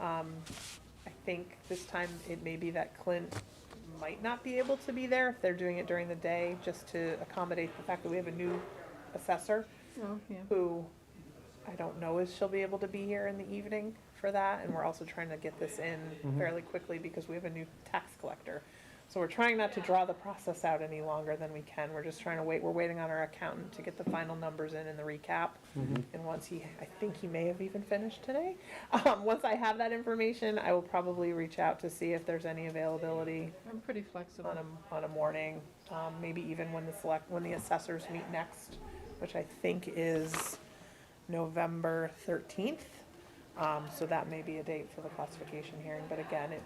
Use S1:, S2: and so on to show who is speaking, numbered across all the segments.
S1: Um, I think this time it may be that Clint might not be able to be there if they're doing it during the day, just to accommodate the fact that we have a new assessor
S2: Oh, yeah.
S1: who I don't know if she'll be able to be here in the evening for that, and we're also trying to get this in fairly quickly because we have a new tax collector. So we're trying not to draw the process out any longer than we can, we're just trying to wait, we're waiting on our accountant to get the final numbers in and the recap. And once he, I think he may have even finished today, um, once I have that information, I will probably reach out to see if there's any availability
S2: I'm pretty flexible.
S1: on a, on a morning, um, maybe even when the select, when the assessors meet next, which I think is November thirteenth. Um, so that may be a date for the classification hearing, but again, it,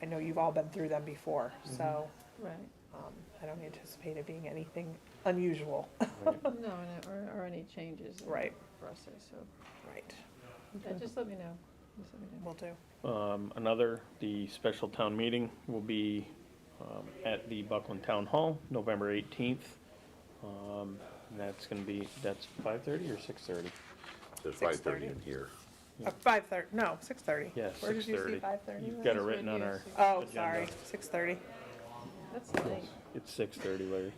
S1: I know you've all been through them before,
S3: Mm-hmm.
S1: so,
S2: Right.
S1: um, I don't anticipate it being anything unusual.
S2: No, and, it- or, or any changes. in the
S1: Oh. Right.
S2: Process, so,
S1: Right.
S2: yeah, just let me know. Just let me know.
S1: Will do.
S3: Um, Another, the special town meeting will be um, at the Buckland Town Hall, November 18th. Um, and That's going to be, that's 5:30 or 6:30?
S4: There's
S1: 6:30.
S4: five-thirty in here.
S1: Uh, five thirty, no, six thirty.
S3: Yeah,
S1: Where did you see
S3: 6:30.
S1: five thirty?
S3: You've got it
S2: That's
S3: written
S2: right
S3: on
S2: here,
S3: our,
S2: six-
S1: Oh,
S3: Agenda.
S1: sorry, six thirty.
S2: That's late.
S3: it's 6:30, Larry.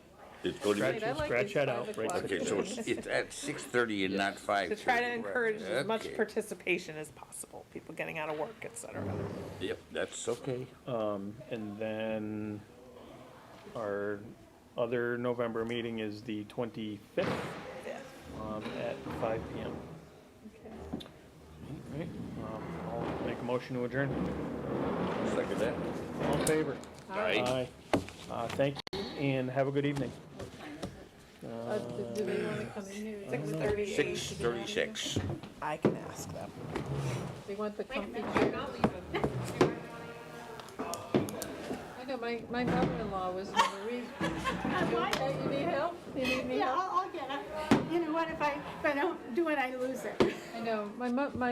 S4: It's going to
S2: Right,
S3: Scratch
S2: I like
S3: scratch
S2: these
S3: that
S2: five
S3: out right
S2: o'clock.
S3: there.
S4: Okay, so it's, it's at six-thirty and not five.
S1: To try to encourage as much
S4: Okay.
S1: participation as possible, people getting out of work, et cetera.
S4: Yep, that's okay.
S3: Um, And then our other November meeting is the 25th
S1: Yeah.
S3: um, at 5 PM.
S2: Okay.
S3: Right, um, I'll make a motion to adjourn.
S4: Second that.
S3: All in favor?
S2: All right.
S3: Aye. Uh, Thank you, and have a good evening.
S2: Uh, do- do they want to come in here?
S1: Six
S2: Would-
S1: thirty-eight.
S4: Six thirty-six.
S1: I can ask them.
S2: They want the comfy chair. I know, my, my mother-in-law was in the re- You okay? You need help? You need me
S5: Yeah,
S2: help?
S5: I'll, I'll get it. You know what, if I, if I don't do it, I lose it.
S2: I know, my mo- my